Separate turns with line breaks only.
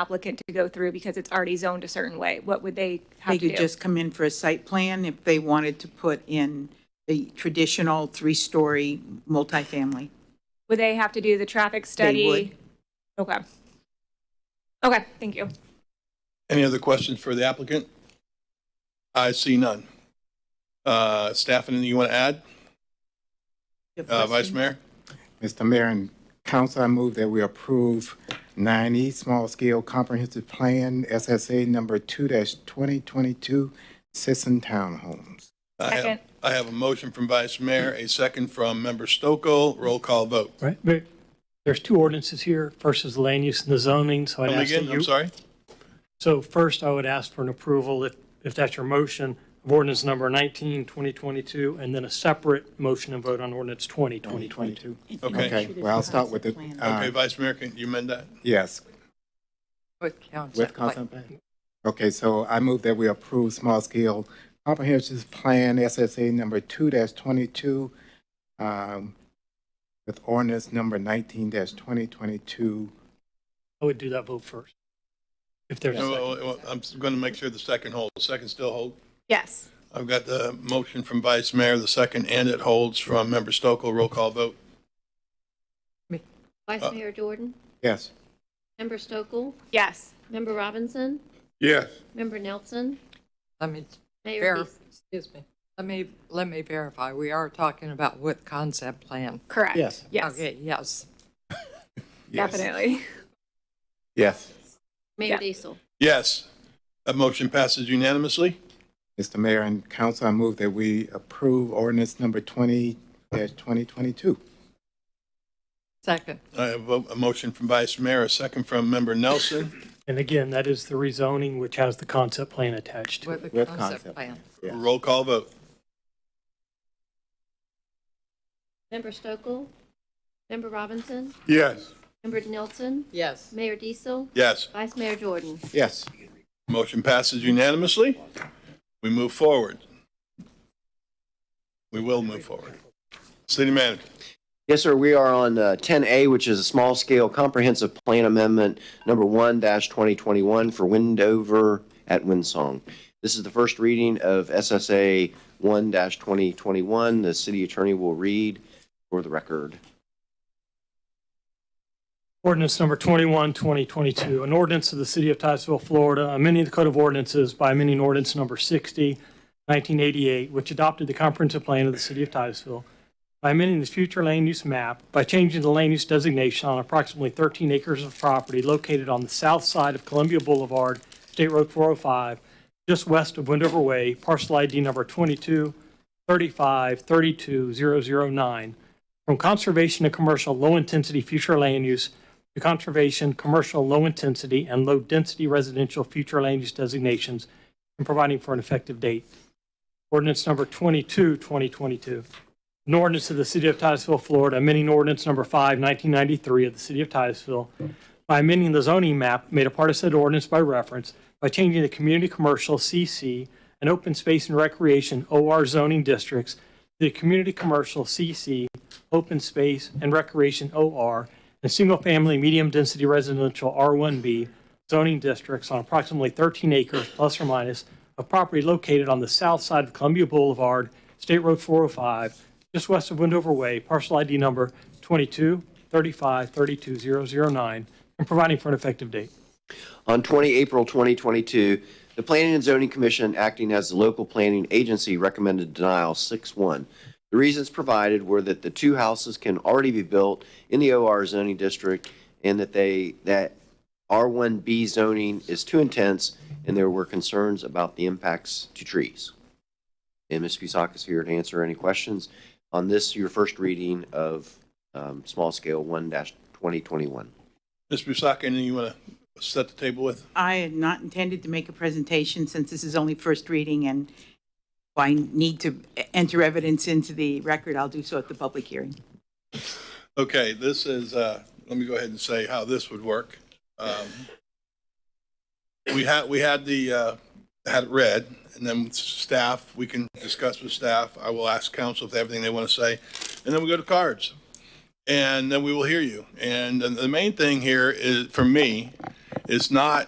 applicant to go through because it's already zoned a certain way? What would they have
They
to do?
could just come in for a site plan if they wanted to put in the traditional three-story multifamily.
Would they have to do the traffic study?
would.
Okay. Okay, thank you.
Any other questions for the applicant? I see none. Uh, Staff, anything you want to add?
You have
Uh, Vice
questions?
Mayor?
Mr. Mayor and Council, I move that we approve 9E Small Scale Comprehensive Plan, SSA number 2-2022, Sisson Townhomes.
I have-
Second.
I have a motion from Vice Mayor, a second from Member Stokoe. Roll call vote.
Right, but there's two ordinances here. First is the land use and the zoning, so I'd
Come
ask that
again, I'm
you.
sorry?
So first, I would ask for an approval, if, if that's your motion, of ordinance number 19, 2022, and then a separate motion and vote on ordinance 20, 2022.
Okay.
Okay, well, I'll start with the,
Okay,
uh,
Vice Mayor, can you amend that?
yes,
With council.
with Council. Okay, so I move that we approve Small Scale Comprehensive Plan, SSA number 2-22, um, with ordinance number 19-2022.
I would do that vote first. If there's a
No, uh,
second.
well, well, I'm going to make sure the second holds. Second still hold?
Yes.
I've got the motion from Vice Mayor, the second, and it holds from Member Stokoe. Roll call vote. Uh,
Vice Mayor Jordan,
Yes.
Member Stokel,
Yes.
Member Robinson,
Yes.
Member Nelson,
Let me
Mayor
verify,
Beasley.
excuse me. Let me, let me verify. We are talking about with concept plan.
Correct.
Yes.
Yes.
Okay, yes.
Definitely.
Yes.
Yeah.
Mayor Diesel.
Yes. That motion passes unanimously.
Mr. Mayor and Council, I move that we approve ordinance number twenty twenty twenty-two.
Second,
I have Uh, a a motion from Vice Mayor, a second from Member Nelson.
And again, that is the rezoning, which has the concept plan attached to it.
with the
With
concept
concept.
plan.
Yes.
Roll call vote.
Member Stokel, Member Robinson,
Yes.
Member Nelson,
Yes.
Mayor Diesel,
Yes.
Vice Mayor Jordan.
Yes.
Motion passes unanimously. We move forward. We will move forward. City Manager.
Yes, sir. We are on uh, 10A, which is a small-scale comprehensive plan amendment, number 1-2021 for Windover at Windsong. This is the first reading of SSA 1-2021. The city attorney will read for the record.
Ordinance number 21, 2022, an ordinance of the City of Titusville, Florida, amending the Code of Ordinances by amending ordinance number 60, 1988, which adopted the comprehensive plan of the City of Titusville, by amending the future land use map, by changing the land use designation on approximately 13 acres of property located on the south side of Columbia Boulevard, State Road 405, just west of Wendover Way, parcel ID number 22, 35, 32009, from conservation to commercial low-intensity future land use to conservation, commercial low-intensity, and low-density residential future land use designations and providing for an effective date. Ordinance number 22, 2022. An ordinance of the City of Titusville, Florida, amending ordinance number 5, 1993 of the City of Titusville by amending the zoning map made a part of said ordinance by reference by changing the community commercial CC and open space and recreation OR zoning districts to the community commercial CC open space and recreation OR, and single-family medium-density residential R1B zoning districts on approximately 13 acres plus or minus of property located on the south side of Columbia Boulevard, State Road 405, just west of Wendover Way, parcel ID number 22 35 32009, and providing for an effective date.
On 20 April 2022, the Planning and Zoning Commission, acting as the local planning agency, recommended denial 6-1. The reasons provided were that the two houses can already be built in the OR zoning district and that they, that R1B zoning is too intense and there were concerns about the impacts to trees. And Ms. Cusack is here to answer any questions on this, your first reading of um, small scale 1-2021.
Ms. Busaka, anything you want to set the table with?
I had not intended to make a presentation since this is only first reading and if I need to enter evidence into the record, I'll do so at the public hearing.
Okay, this is, uh, let me go ahead and say how this would work. Um, We had, we had the, uh, had it read, and then staff, we can discuss with staff. I will ask council if they have anything they want to say, and then we go to cards. And then we will hear you. And the- the main thing here is, for me, It's not